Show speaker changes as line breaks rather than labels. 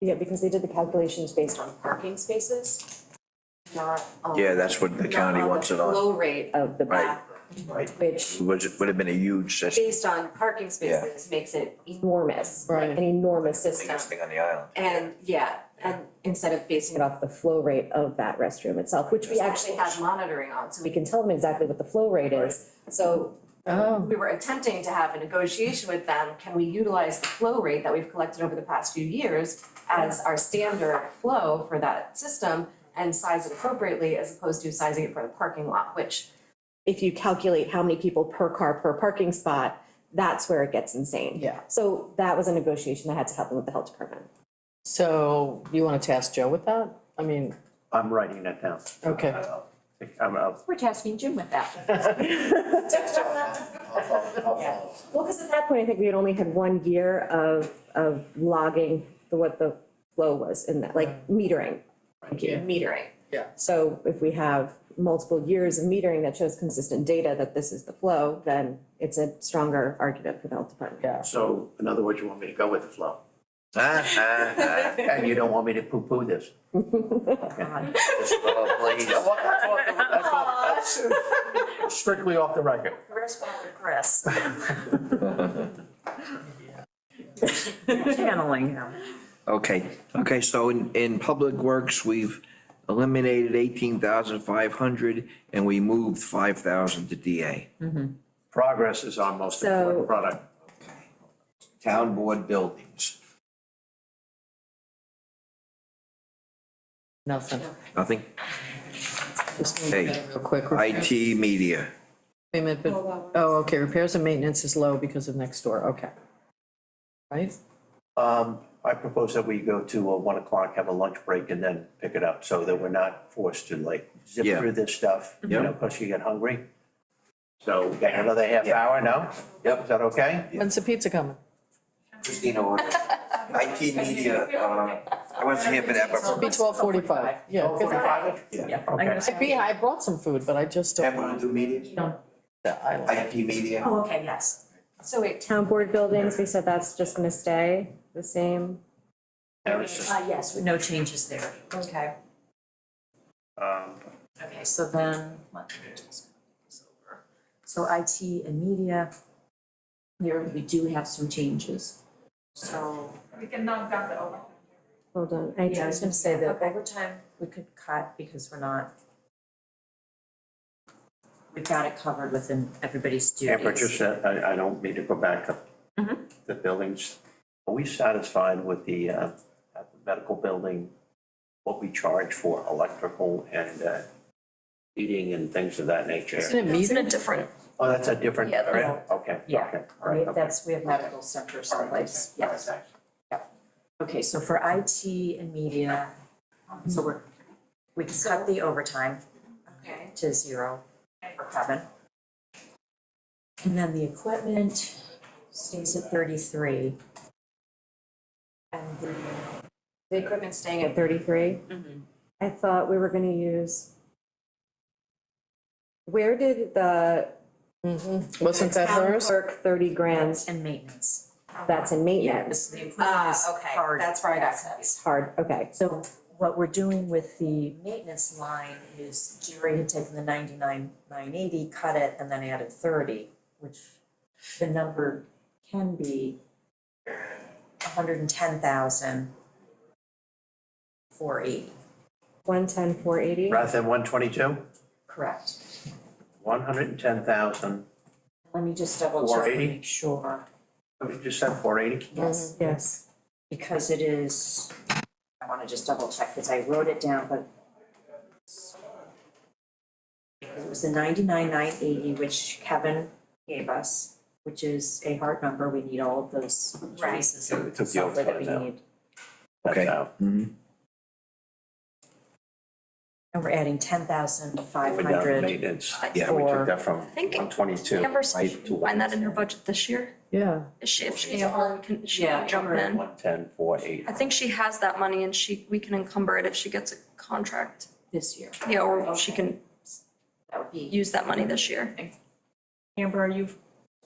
Yeah, because they did the calculations based on parking spaces, not on.
Yeah, that's what the county
not
wants it
the
on.
Flow rate of the
Right.
back,
Right.
which
Would, would have been a huge system,
based on parking spaces makes it enormous, like
Right.
an enormous system.
biggest thing on the island.
And yeah, and instead of basing it off the flow rate of that restroom itself, which we actually have monitoring on, so we can tell them exactly what the flow rate is. So
Oh,
we were attempting to have a negotiation with them, can we utilize the flow rate that we've collected over the past few years as our standard flow for that system and size it appropriately as opposed to sizing it for the parking lot, which if you calculate how many people per car per parking spot, that's where it gets insane.
Yeah.
So that was a negotiation that had to happen with the health department.
so you want to task Joe with that? I mean,
I'm writing that down.
Okay.
I'll- I'm, I'll,
We're tasking Jim with that. Yeah. Well, because at that point, I think we had only had one year of, of logging the, what the flow was in that, like metering. Thank you,
Yeah.
metering.
Yeah.
So if we have multiple years of metering that shows consistent data that this is the flow, then it's a stronger argument for the health department.
yeah,
so in other words, you want me to go with the flow?
Ah, ah, ah.
And you don't want me to poo-poo this?
Just, oh, please.
That's off- that's off the- that's off- that's Strictly off the record.
Chris.
channeling him.
Okay, okay, so in, in Public Works, we've eliminated eighteen thousand five hundred and we moved five thousand to DA.
Progress is our most
So-
important product.
Town Board Buildings,
nothing.
nothing,
Just gonna do that Real quick. repairs
IT Media,
and maintenance, but- Oh, okay, repairs and maintenance is low because of next door, okay. Right?
Um, I propose that we go to uh, one o'clock, have a lunch break and then pick it up so that we're not forced to like zip
Yeah.
through this stuff, you
Yep.
know, because you get hungry. So we got another half hour, no? Yep. Is that okay?
When's the pizza coming?
Christina ordered. IT Media, uh, I wasn't here for that, but.
Be twelve forty-five, yeah.
Oh,
good.
45?
Yeah.
I'm
Okay.
gonna
I be, I brought some food, but I just
Have
don't.
one do media,
I-
IT Media.
Oh, okay, yes. So wait, town board buildings, we said that's just gonna stay the same?
There is just,
Uh, yes, with no changes there.
Okay.
um,
Okay, so then, let me just go this over. So IT and media, there, we do have some changes. So,
Hold on, I
yeah, I was
just,
gonna say that overtime, we could cut because we're not, we've got it covered within everybody's duties.
Amber, just, uh, I, I don't mean to go back up. The buildings, are we satisfied with the, uh, at the medical building, what we charge for electrical and, uh, heating and things of that nature?
Isn't it
It's in a
meter?
different,
Oh, that's a different,
Yeah, the-
area? okay,
Yeah.
okay, all
we-
right, okay.
that's, we have medical centers in place,
All right,
yes.
thanks.
Okay, so for IT and media, so we're, we can cut the overtime
okay.
to zero for Kevin. And then the equipment stays at thirty-three. And the.
The equipment's staying at thirty-three? I thought we were gonna use. Where did the
Mhm. Wasn't that
town
hers?
clerk thirty grand,
And maintenance.
that's in maintenance?
This, Mm-hmm. the equipment
Ah,
is
okay,
hard
that's where I got
assets.
It's hard, okay,
So what we're doing with the maintenance line is Jerry had taken the ninety-nine, nine eighty, cut it, and then added thirty, which the number can be hundred and ten thousand four eighty,
one ten, four eighty?
Rather than one twenty-two,
correct?
one hundred and ten thousand,
Let me just double check to
480?
make sure,
you just said four eighty?
yes,
Yes,
Mm-hmm. because it is, I wanna just double check, because I wrote it down, but It was the ninety-nine, nine eighty, which Kevin gave us, which is a hard number, we need all of those
Right.
pieces
Yeah, we took
of
the
software that
overtime
we need.
out.
Okay. Mhm.
And we're adding ten thousand five
Went down to
hundred
maintenance,
Yeah,
we took
for,
that from
think-
one twenty-two.
Amber's find that in her budget this year,
Yeah,
Is she, if she's on, can she
Yeah,
jump in?
One ten, four eighty.
I think she has that money and she, we can encumber it if she gets a contract,
this year,
yeah, or she can
that would be.
use that money this year.
Amber, are you